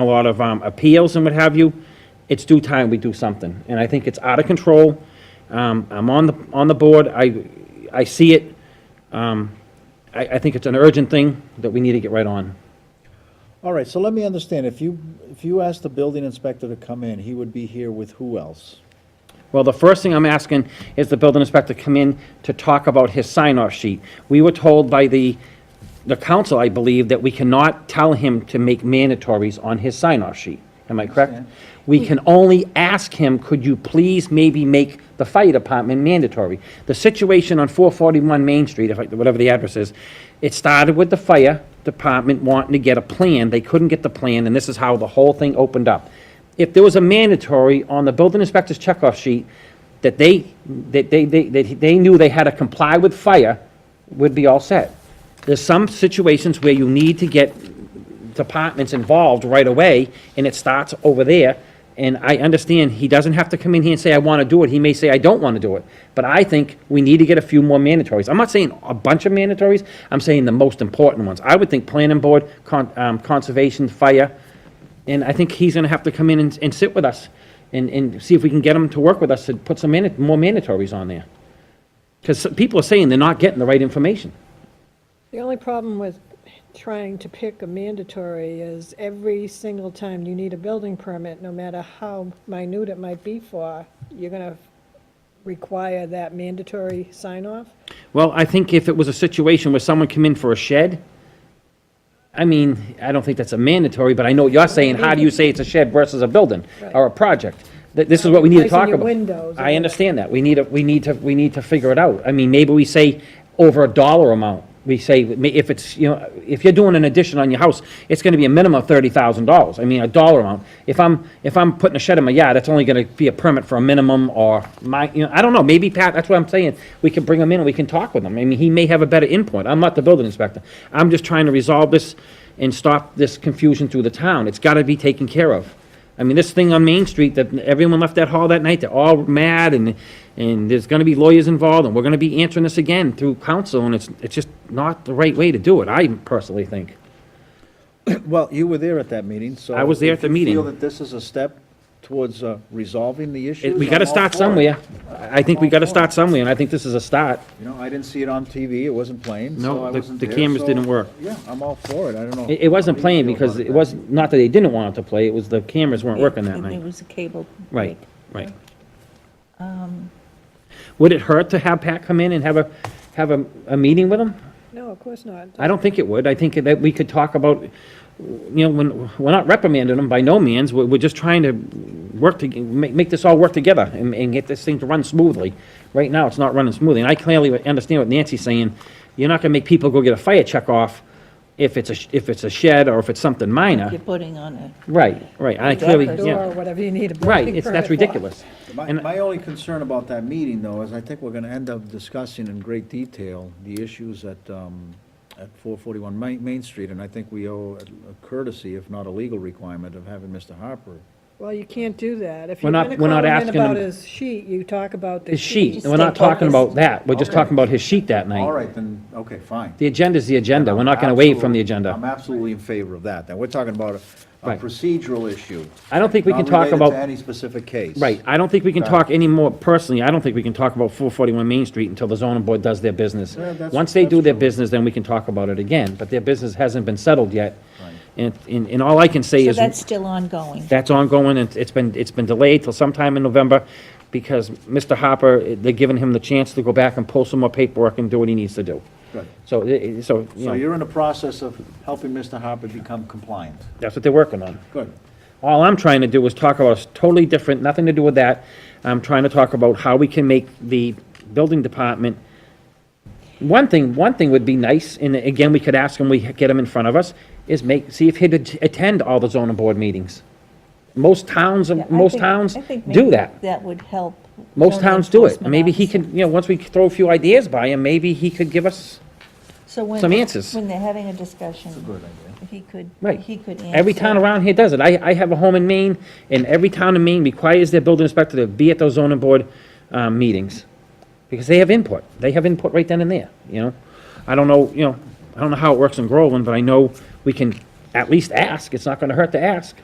a lot of um, appeals and what have you, it's due time we do something. And I think it's out of control. Um, I'm on the, on the board, I, I see it. Um, I, I think it's an urgent thing that we need to get right on. All right, so let me understand, if you, if you asked the building inspector to come in, he would be here with who else? Well, the first thing I'm asking is the building inspector come in to talk about his sign-off sheet. We were told by the, the council, I believe, that we cannot tell him to make mandatories on his sign-off sheet. Am I correct? We can only ask him, could you please maybe make the fire department mandatory? The situation on 441 Main Street, if I- whatever the address is, it started with the fire department wanting to get a plan. They couldn't get the plan, and this is how the whole thing opened up if there was a mandatory on the building inspector's checkoff sheet that they, that they, they, that they knew they had to comply with fire, would be all set. There's some situations where you need to get departments involved right away, and it starts over there. And I understand he doesn't have to come in here and say, I want to do it. He may say, I don't want to do it. But I think we need to get a few more mandatories. I'm not saying a bunch of mandatories, I'm saying the most important ones. I would think planning board, con, um, conservation, fire, and I think he's gonna have to come in and, and sit with us and, and see if we can get him to work with us and put some mani- more mandatories on there. Because people are saying they're not getting the right information. The only problem with trying to pick a mandatory is every single time you need a building permit, no matter how minute it might be for, you're gonna require that mandatory sign-off? Well, I think if it was a situation where someone came in for a shed, I mean, I don't think that's a mandatory, but I know what you're saying, how do you say it's a shed versus a building or a project? Th- This is what we need to Replacing talk your about. windows or I understand that. We need, a- we need to, we need to figure it out. I mean, maybe we say over a dollar amount. We say, ma- if it's, you know, if you're doing an addition on your house, it's gonna be a minimum of thirty thousand dollars. I mean, a dollar amount. If I'm, if I'm putting a shed in my yard, that's only gonna be a permit for a minimum or my, you know, I don't know, maybe Pat, that's what I'm saying. We can bring him in and we can talk with him. I mean, he may have a better input. I'm not the building inspector. I'm just trying to resolve this and stop this confusion through the town. It's gotta be taken care of. I mean, this thing on Main Street, that everyone left that hall that night, they're all mad, and, and there's gonna be lawyers involved, and we're gonna be answering this again through council, and it's, it's just not the right way to do it, I personally think. Well, you were there at that meeting, so. I was there at if the you meeting. Feel that this is a step towards uh, resolving the It- issue? We gotta start somewhere. I I think we gotta start somewhere, and I think this is a start. You know, I didn't see it on TV, it wasn't playing, No, so I the- wasn't the there, cameras so- didn't work. Yeah, I'm all for it, I don't know. It, it wasn't How do you playing feel because about it wasn't, not that they didn't want it to play, it was the cameras weren't working that It night. was a cable. Um, Right, right. Would it hurt to have Pat come in and have a, have a, a meeting with him? No, of course not. I don't think it would. I think that we could talk about, you know, when, we're not reprimanding them by no means. We're, we're just trying to work to, make, make this all work together and, and get this thing to run smoothly. Right now, it's not running smoothly. And I clearly understand what Nancy's saying. You're not gonna make people go get a fire check off if it's a, sh- if it's a shed or if it's something minor. You're putting on a, Right, right. I clearly, Exactly. Door, or yeah. whatever you need a building Right, it's, permit that's for. ridiculous. My, And- my only concern about that meeting, though, is I think we're gonna end up discussing in great detail the issues at, um, at four forty-one Main, Main Street, and I think we owe a courtesy, if not a legal requirement, of having Mr. Harper. Well, you can't do that. If We're you're not- gonna we're call not him in asking him- about his sheet, you talk about the His sheet, sheet. we're not Stay talking about focused. that. We're just Okay. talking about his sheet that All night. right, then, okay, fine. The agenda's the agenda. We're not gonna waive from the agenda. I'm absolutely in favor of that. Now, we're talking about a- a Right. procedural issue. I don't think we can not talk about- related to any specific case. Right, I don't think we can talk any more, personally, I don't think we can talk about 441 Main Street until the zoning board does their business. Yeah, that's- Once they do that's their true. business, then we can talk about it again, but their business hasn't been settled yet. And, and and all I can say so is, that's still ongoing. that's ongoing, and it's been, it's been delayed till sometime in November, because Mr. Hopper, they're giving him the chance to go back and pull some more paperwork and do what he needs to do. Good. So, eh, eh, so, you So know, you're in the process of helping Mr. Harper become compliant. that's what they're working on. Good. All I'm trying to do is talk about is totally different, nothing to do with that. I'm trying to talk about how we can make the building department. One thing, one thing would be nice, and again, we could ask him, we get him in front of us, is make, see if he'd at- attend all the zoning board meetings. Most towns, Yeah, I most think- towns I think do maybe that. That would help. Most zoning towns do it. enforcement Maybe he officer. can, you know, once we throw a few ideas by him, maybe he could give us, So when- some answers. When they're having a discussion. He could, Right. he could answer. Every town around here does it. I, I have a home in Maine, and every town in Maine requires their building inspector to be at those zoning board, um, meetings. Because they have input. They have input right then and there, you know? I don't know, you know, I don't know how it works in Groveland, but I know we can at least ask. It's not gonna hurt to ask.